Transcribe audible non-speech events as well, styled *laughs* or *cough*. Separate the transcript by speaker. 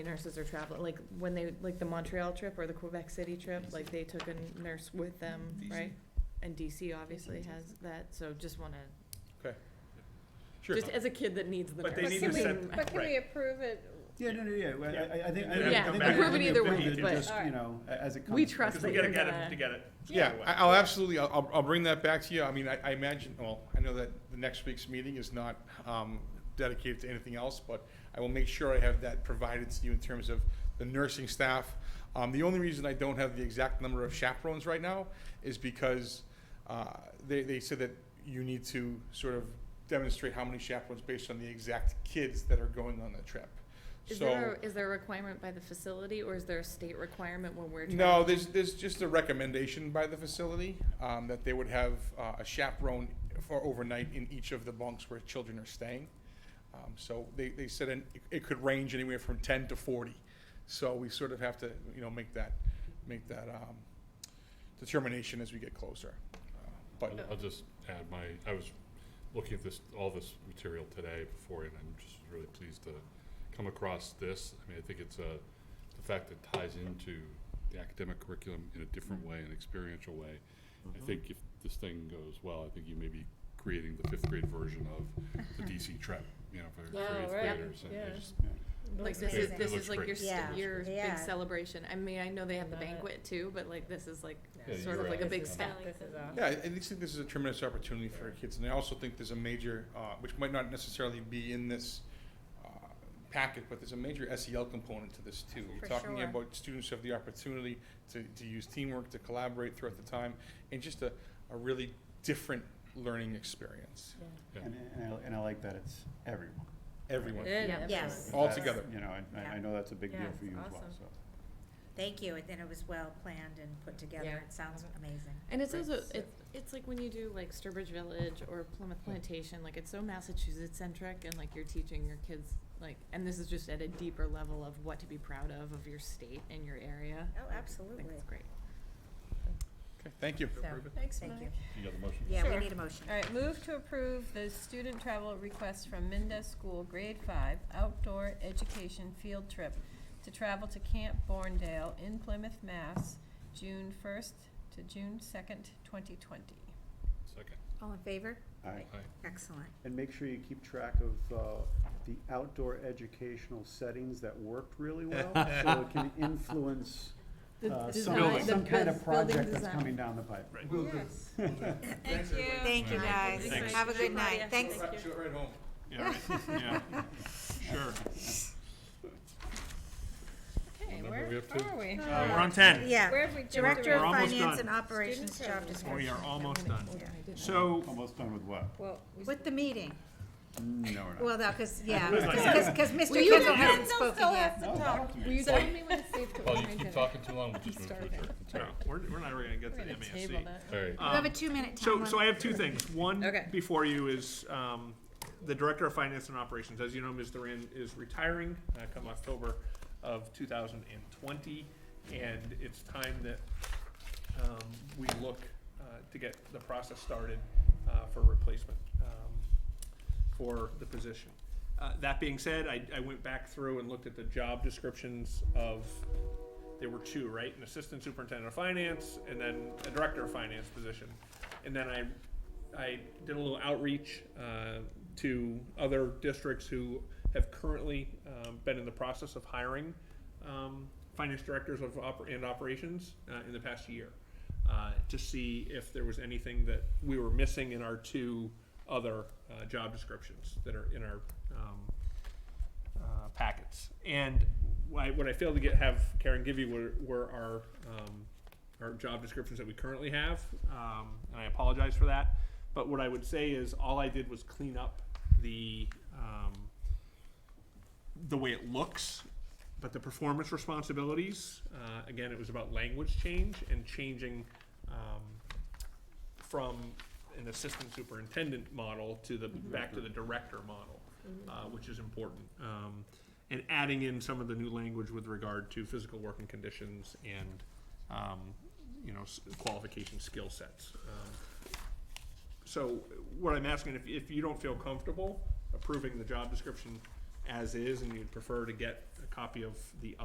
Speaker 1: nurses are traveling, like, when they, like, the Montreal trip or the Quebec City trip, like, they took a nurse with them,
Speaker 2: DC.
Speaker 1: right? And DC obviously has that, so just wanna,
Speaker 2: Sure.
Speaker 1: just as a kid that needs the nurse.
Speaker 2: But they need
Speaker 3: But
Speaker 2: to
Speaker 3: can
Speaker 2: set,
Speaker 3: we, but can
Speaker 2: right.
Speaker 3: we approve it?
Speaker 4: Yeah, no, no, yeah, well, I, I- I think. I- I
Speaker 2: Yeah,
Speaker 4: think
Speaker 2: back.
Speaker 4: we
Speaker 2: Approve it
Speaker 4: can
Speaker 1: either
Speaker 4: approve
Speaker 1: way,
Speaker 4: it
Speaker 1: but-
Speaker 4: Just, you
Speaker 3: Alright.
Speaker 4: know, a- as it comes.
Speaker 1: We trust
Speaker 2: Because
Speaker 1: that
Speaker 2: we
Speaker 1: you're
Speaker 2: gotta get it,
Speaker 1: gonna-
Speaker 2: to get it.
Speaker 5: Yeah,
Speaker 2: Anyway.
Speaker 5: I- I'll absolutely, I'll- I'll, I'll bring that back to you. I mean, I, I imagine, well, I know that the next week's meeting is not um, dedicated to anything else, but I will make sure I have that provided to you in terms of the nursing staff. Um, The only reason I don't have the exact number of chaperones right now is because uh, they, they said that you need to sort of demonstrate how many chaperones based on the exact kids that are going on the trip.
Speaker 1: Is
Speaker 5: So-
Speaker 1: there, a- is there a requirement by the facility, or is there a state requirement when we're?
Speaker 5: No,
Speaker 1: traveling?
Speaker 5: there's, there's just a recommendation by the facility, um, that they would have, uh, a chaperone for overnight in each of the bunks where children are staying. Um, so they, they said an- it- it could range anywhere from ten to forty, so we sort of have to, you know, make that, make that, um, determination as we get closer. Uh, But,
Speaker 6: I'll- I'll just add my, I was looking at this, all this material today before, and I'm just really pleased to come across this. I mean, I think it's a, the fact that ties into the academic curriculum in a different way, an experiential way. I think if this thing goes well, I think you may be creating the fifth grade version of
Speaker 3: *laughs*
Speaker 6: the DC trip, you know, for
Speaker 3: Yeah,
Speaker 6: for eighth
Speaker 3: right.
Speaker 6: graders. and I
Speaker 3: Yeah.
Speaker 6: just-
Speaker 1: Like, this
Speaker 6: amazing.
Speaker 1: is,
Speaker 6: It
Speaker 1: this
Speaker 6: looks
Speaker 1: is like
Speaker 6: great.
Speaker 1: your, st-
Speaker 6: Yeah.
Speaker 1: your big
Speaker 7: Yeah.
Speaker 1: celebration, I mean, I know they have the
Speaker 3: Love it.
Speaker 1: banquet too, but like, this is like,
Speaker 6: Yeah,
Speaker 1: sort
Speaker 6: you're
Speaker 1: of like a
Speaker 6: right.
Speaker 1: big
Speaker 6: This is
Speaker 1: step.
Speaker 3: This is awesome.
Speaker 5: yeah, I, I just think this is a tremendous opportunity for our kids, and I also think there's a major, uh, which might not necessarily be in this, uh, packet, but there's a major SEL component to this too. You're
Speaker 7: For
Speaker 5: talking
Speaker 7: sure.
Speaker 5: about students who have the opportunity to, to use teamwork, to collaborate throughout the time, and just a, a really different learning experience.
Speaker 6: Yeah.
Speaker 4: And, and I, and I like that it's everyone.
Speaker 5: Everyone.
Speaker 3: Yeah,
Speaker 7: Yeah. Yes.
Speaker 3: absolutely.
Speaker 5: All
Speaker 4: That's,
Speaker 5: together.
Speaker 4: You know, and I, I
Speaker 7: Yeah.
Speaker 4: know that's a big deal
Speaker 3: Yeah,
Speaker 4: for you as well,
Speaker 3: awesome.
Speaker 4: so.
Speaker 7: Thank you, and then it was well planned and put together,
Speaker 3: Yeah.
Speaker 7: it sounds amazing.
Speaker 1: And it's
Speaker 7: Great.
Speaker 1: also it, it's like when you do like Sturbridge Village or Plymouth Plantation, like it's so Massachusetts centric, and like you're teaching your kids like, and this is just at a deeper level of what to be proud of of your state and your area. Like, I
Speaker 7: Oh,
Speaker 1: think
Speaker 7: absolutely.
Speaker 1: it's great.
Speaker 5: Okay, thank you.
Speaker 3: So, Thanks,
Speaker 7: Thank
Speaker 3: Mike.
Speaker 7: you.
Speaker 6: You got the motion?
Speaker 7: Yeah, we
Speaker 3: Sure.
Speaker 7: need a motion.
Speaker 3: All right, move to approve the student travel request from Minda School, grade five, outdoor education field trip to travel to Camp Borndale in Plymouth, Mass, June first to June second, twenty twenty.
Speaker 6: Second.
Speaker 7: All in favor?
Speaker 4: All right,
Speaker 6: Aye.
Speaker 7: Excellent.
Speaker 4: and make sure you keep track of, uh, the outdoor educational settings that worked really well, so it *laughs* can influence, uh, some,
Speaker 6: Building.
Speaker 4: some kind of project that's coming down the pipe.
Speaker 5: Will
Speaker 3: Yes.
Speaker 5: Thank
Speaker 3: you.
Speaker 7: Thank you,
Speaker 3: Thank
Speaker 7: guys.
Speaker 3: you.
Speaker 6: Thanks.
Speaker 7: Have a good night.
Speaker 3: Thank
Speaker 7: Thanks.
Speaker 3: you.
Speaker 5: right home.
Speaker 6: Yeah, yeah, sure.
Speaker 3: Okay,
Speaker 6: number
Speaker 3: where
Speaker 6: are we up to?
Speaker 3: are we?
Speaker 2: Uh, We're on ten.
Speaker 3: Where
Speaker 7: Yeah.
Speaker 3: have we? jumped
Speaker 7: Director
Speaker 2: We're
Speaker 3: around?
Speaker 7: of
Speaker 2: almost
Speaker 7: Finance
Speaker 2: done.
Speaker 7: and Operations
Speaker 3: Student
Speaker 7: Job
Speaker 3: services.
Speaker 2: We
Speaker 7: description.
Speaker 2: are almost done.
Speaker 7: Yeah.
Speaker 2: So,
Speaker 4: Almost done with what?
Speaker 3: Well, we
Speaker 7: With the meeting.
Speaker 4: No, we're not.
Speaker 7: Well, no, because, yeah,
Speaker 2: Who's like-
Speaker 7: because, because Mr.
Speaker 1: Will you
Speaker 7: Kendall
Speaker 1: guys
Speaker 7: hasn't
Speaker 3: still
Speaker 7: spoken
Speaker 3: still
Speaker 7: yet.
Speaker 3: have-
Speaker 4: No,
Speaker 3: Talk.
Speaker 4: talk to me.
Speaker 1: Will you
Speaker 6: Paul,
Speaker 1: tell me when it's
Speaker 6: *laughs*
Speaker 1: safe to
Speaker 6: Paul,
Speaker 1: order
Speaker 6: you
Speaker 1: my
Speaker 6: keep
Speaker 1: dinner?
Speaker 6: talking too long, we'll just move to
Speaker 1: Starving.
Speaker 6: adjourn. It's all
Speaker 2: no,
Speaker 6: right.
Speaker 2: we're, we're not really gonna get
Speaker 3: We're
Speaker 2: to
Speaker 1: *laughs*
Speaker 2: the
Speaker 3: gonna table
Speaker 2: MASC.
Speaker 3: that.
Speaker 6: All right.
Speaker 7: You have a
Speaker 2: Um,
Speaker 7: two-minute time
Speaker 2: So,
Speaker 7: limit.
Speaker 2: so I have two things. One
Speaker 1: Okay.
Speaker 2: before you is um, the director of finance and operations. As you know, Ms. Duran is retiring uh, come October of 2020, and it's time that um, we look uh, to get the process started uh, for replacement um, for the position. Uh, that being said, I, I went back through and looked at the job descriptions of there were two, right? An assistant superintendent of finance and then a director of finance position. And then I, I did a little outreach uh, to other districts who have currently um, been in the process of hiring um, finance directors of oper- and operations uh, in the past year uh, to see if there was anything that we were missing in our two other uh, job descriptions that are in our um, uh, packets. And why, what I failed to get have Karen give you were, were our um, our job descriptions that we currently have, um, and I apologize for that. But what I would say is all I did was clean up the um, the way it looks, but the performance responsibilities. Uh, again, it was about language change and changing um, from an assistant superintendent model to the back to the director model uh, which is important. Um, and adding in some of the new language with regard to physical working conditions and, um, you know, s- qualification skill sets. Um, So what I'm asking, if, if you don't feel comfortable approving the job description as is and you'd prefer to get a copy of the